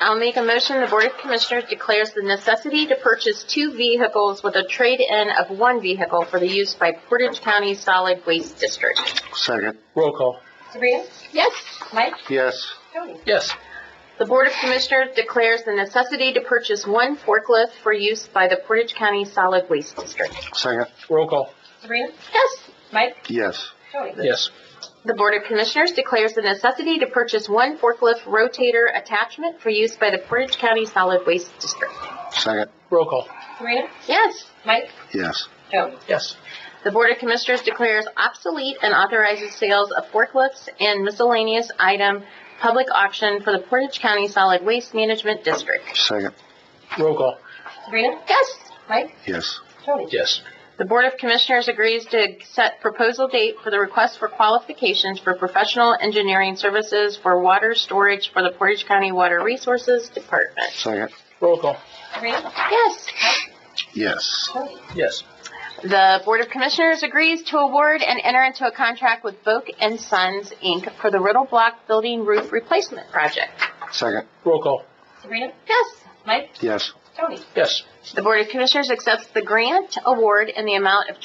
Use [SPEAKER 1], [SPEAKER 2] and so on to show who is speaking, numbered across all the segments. [SPEAKER 1] I'll make a motion, the Board of Commissioners declares the necessity to purchase two vehicles with a trade-in of one vehicle for the use by Portage County Solid Waste District.
[SPEAKER 2] Second,
[SPEAKER 3] Roll call.
[SPEAKER 1] Sabrina? Yes. Mike?
[SPEAKER 2] yes.
[SPEAKER 1] Tony?
[SPEAKER 3] Yes.
[SPEAKER 1] The Board of Commissioners declares the necessity to purchase one forklift for use by the Portage County Solid Waste District.
[SPEAKER 2] Second,
[SPEAKER 3] Roll call.
[SPEAKER 1] Sabrina? Yes. Mike?
[SPEAKER 2] yes.
[SPEAKER 1] Tony?
[SPEAKER 3] Yes.
[SPEAKER 1] The Board of Commissioners declares the necessity to purchase one forklift rotator attachment for use by the Portage County Solid Waste District.
[SPEAKER 2] Second,
[SPEAKER 3] Roll call.
[SPEAKER 1] Sabrina? Yes. Mike?
[SPEAKER 2] yes.
[SPEAKER 1] Tony?
[SPEAKER 3] Yes.
[SPEAKER 1] The Board of Commissioners declares obsolete and authorizes sales of forklifts and miscellaneous item public auction for the Portage County Solid Waste Management District.
[SPEAKER 2] Second,
[SPEAKER 3] Roll call.
[SPEAKER 1] Sabrina? Yes. Mike?
[SPEAKER 2] yes.
[SPEAKER 1] Tony?
[SPEAKER 3] Yes.
[SPEAKER 1] The Board of Commissioners agrees to set proposal date for the request for qualifications for professional engineering services for water storage for the Portage County Water Resources Department.
[SPEAKER 2] Second,
[SPEAKER 3] Roll call.
[SPEAKER 1] Sabrina? Yes.
[SPEAKER 2] yes.
[SPEAKER 3] Yes.
[SPEAKER 1] The Board of Commissioners agrees to award and enter into a contract with Voke and Sons, Inc. for the Riddle Block Building Roof Replacement Project.
[SPEAKER 2] Second,
[SPEAKER 3] Roll call.
[SPEAKER 1] Sabrina? Yes. Mike?
[SPEAKER 2] yes.
[SPEAKER 1] Tony?
[SPEAKER 3] Yes.
[SPEAKER 1] The Board of Commissioners accepts the grant award in the amount of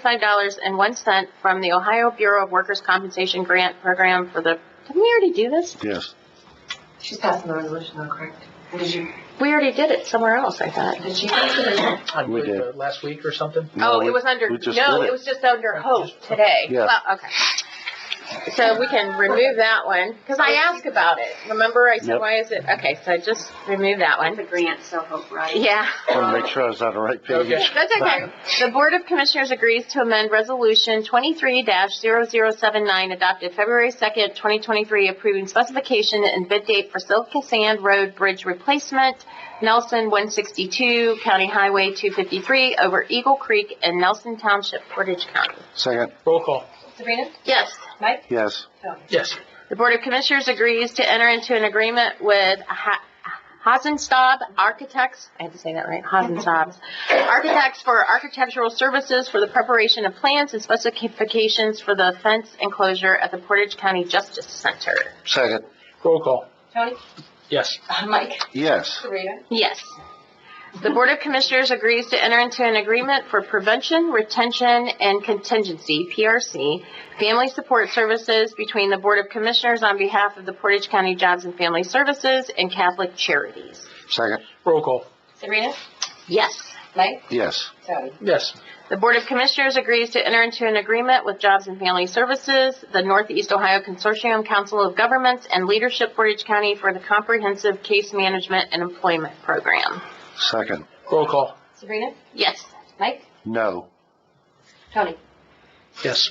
[SPEAKER 1] $21,625.01 from the Ohio Bureau of Workers' Compensation Grant Program for the, didn't we already do this?
[SPEAKER 2] Yes.
[SPEAKER 4] She's passing the resolution though, correct? Or Did you,
[SPEAKER 1] We already did it somewhere else, I thought.
[SPEAKER 4] did she pass it or not?
[SPEAKER 3] I
[SPEAKER 2] We
[SPEAKER 3] believe,
[SPEAKER 2] did.
[SPEAKER 3] uh, Last week or something?
[SPEAKER 2] No,
[SPEAKER 1] Oh,
[SPEAKER 2] we-
[SPEAKER 1] it was under,
[SPEAKER 2] we just
[SPEAKER 1] no,
[SPEAKER 2] did
[SPEAKER 1] it was just under hope today.
[SPEAKER 2] Yeah.
[SPEAKER 1] Well, okay. So we can remove that one, because I asked about it. Remember, I said,
[SPEAKER 2] Yep.
[SPEAKER 1] why is it, okay, so just remove that one.
[SPEAKER 5] The grant, so hope, right?
[SPEAKER 1] Yeah.
[SPEAKER 2] Want to make sure I was on the right page.
[SPEAKER 3] Okay.
[SPEAKER 1] That's okay. The Board of Commissioners agrees to amend Resolution 23-0079 adopted February 2nd, 2023, approving specification and bid date for Silka Sand Road Bridge Replacement, Nelson 162, County Highway 253, over Eagle Creek and Nelson Township, Portage County.
[SPEAKER 2] Second,
[SPEAKER 3] Roll call.
[SPEAKER 4] Sabrina?
[SPEAKER 1] Yes.
[SPEAKER 2] yes.
[SPEAKER 3] Yes.
[SPEAKER 1] The Board of Commissioners agrees to enter into an agreement with Ha- Hasenstab Architects, I had to say that right, Hasenstab, Architects for Architectural Services for the preparation of plans and specifications for the fence enclosure at the Portage County Justice Center.
[SPEAKER 2] Second,
[SPEAKER 3] Roll call.
[SPEAKER 4] Tony?
[SPEAKER 3] Yes.
[SPEAKER 4] uh, Mike?
[SPEAKER 2] yes.
[SPEAKER 4] Sabrina?
[SPEAKER 1] Yes. The Board of Commissioners agrees to enter into an agreement for prevention, retention, and contingency, PRC, family support services between the Board of Commissioners on behalf of the Portage County Jobs and Family Services and Catholic Charities.
[SPEAKER 2] Second,
[SPEAKER 3] Roll call.
[SPEAKER 4] Sabrina?
[SPEAKER 1] Yes.
[SPEAKER 4] Mike?
[SPEAKER 2] yes.
[SPEAKER 4] Tony?
[SPEAKER 3] Yes.
[SPEAKER 1] The Board of Commissioners agrees to enter into an agreement with Jobs and Family Services, the Northeast Ohio Consortium Council of Governments, and Leadership Portage County for the Comprehensive Case Management and Employment Program.
[SPEAKER 2] Second,
[SPEAKER 3] Roll call.
[SPEAKER 4] Sabrina?
[SPEAKER 1] Yes.
[SPEAKER 4] Mike?
[SPEAKER 2] no.
[SPEAKER 4] Tony?
[SPEAKER 3] Yes.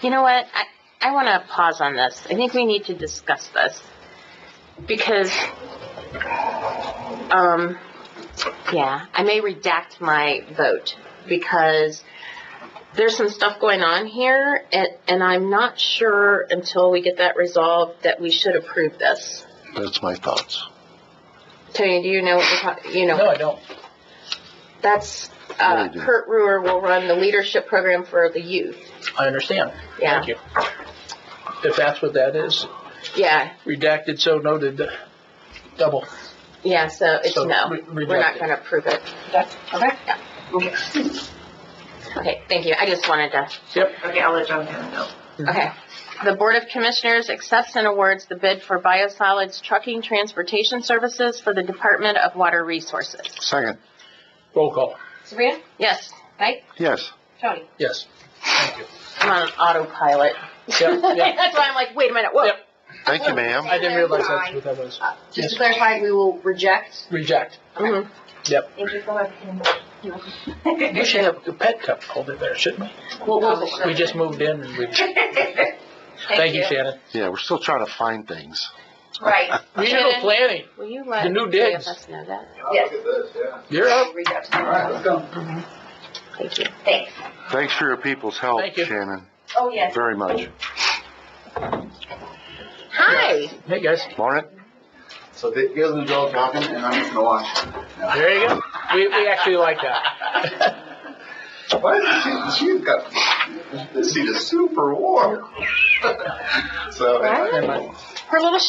[SPEAKER 1] You know what? I, I want to pause on this. I think we need to discuss this because, um, yeah, I may redact my vote because there's some stuff going on here, and, and I'm not sure until we get that resolved that we should approve this.
[SPEAKER 2] That's my thoughts.
[SPEAKER 1] Tony, do you know what we're talking? You know,
[SPEAKER 3] No, I don't.
[SPEAKER 1] that's
[SPEAKER 2] No,
[SPEAKER 1] uh,
[SPEAKER 2] I do.
[SPEAKER 1] Kurt Ruhr will run the leadership program for the youth.
[SPEAKER 3] I understand.
[SPEAKER 1] Yeah,
[SPEAKER 3] Thank you. If that's what that is,
[SPEAKER 1] yeah,
[SPEAKER 3] redacted, so noted, double.
[SPEAKER 1] yeah. So it's
[SPEAKER 3] So,
[SPEAKER 1] no.
[SPEAKER 3] re-
[SPEAKER 1] We're not
[SPEAKER 3] redacted.
[SPEAKER 1] going to approve it.
[SPEAKER 4] Okay.
[SPEAKER 1] Okay, thank you. I just wanted to,
[SPEAKER 4] Okay, I'll let John know.
[SPEAKER 3] Mm-hmm.
[SPEAKER 1] okay. The Board of Commissioners accepts and awards the bid for biosolids trucking transportation services for the Department of Water Resources.
[SPEAKER 2] Second,
[SPEAKER 3] Roll call.
[SPEAKER 4] Sabrina?
[SPEAKER 1] Yes,
[SPEAKER 2] yes.
[SPEAKER 4] Tony?
[SPEAKER 3] Yes. Thank you.
[SPEAKER 1] I'm on autopilot.
[SPEAKER 3] Yep, yep.
[SPEAKER 1] That's why I'm like, wait a minute, whoa.
[SPEAKER 3] Yep.
[SPEAKER 2] Thank you, ma'am.
[SPEAKER 3] I didn't realize that's what that was.
[SPEAKER 5] Just
[SPEAKER 3] Yes.
[SPEAKER 5] to clarify, we will reject.
[SPEAKER 3] Reject.
[SPEAKER 1] Mhm.
[SPEAKER 4] Thank you so
[SPEAKER 3] We should have a pet cup holder there, shouldn't
[SPEAKER 5] We'll, we'll.
[SPEAKER 3] we? We just moved in and we, thank
[SPEAKER 4] Thank
[SPEAKER 3] you,
[SPEAKER 4] you.
[SPEAKER 3] Shannon.
[SPEAKER 2] Yeah, we're still trying to find things.
[SPEAKER 4] Right.
[SPEAKER 3] Regional
[SPEAKER 1] Shannon.
[SPEAKER 3] planning,
[SPEAKER 1] Will you let
[SPEAKER 3] The new digs.
[SPEAKER 1] KFS know that?
[SPEAKER 4] Yes.
[SPEAKER 3] you're up.
[SPEAKER 4] We'll reach out to them.
[SPEAKER 1] Thank you.
[SPEAKER 4] Thanks.
[SPEAKER 2] Thanks for your people's help,
[SPEAKER 3] Thank you.
[SPEAKER 2] Shannon,
[SPEAKER 4] Oh, yes.
[SPEAKER 2] very much.
[SPEAKER 1] Hi,
[SPEAKER 3] Hey, guys.
[SPEAKER 2] Lauren?
[SPEAKER 6] So Dick goes in the dog talking, and I'm just gonna watch.
[SPEAKER 3] There you go. We, we actually like that.
[SPEAKER 6] Why is she, she's got, she's super warm. So.
[SPEAKER 1] Right.
[SPEAKER 3] Never mind.
[SPEAKER 1] her little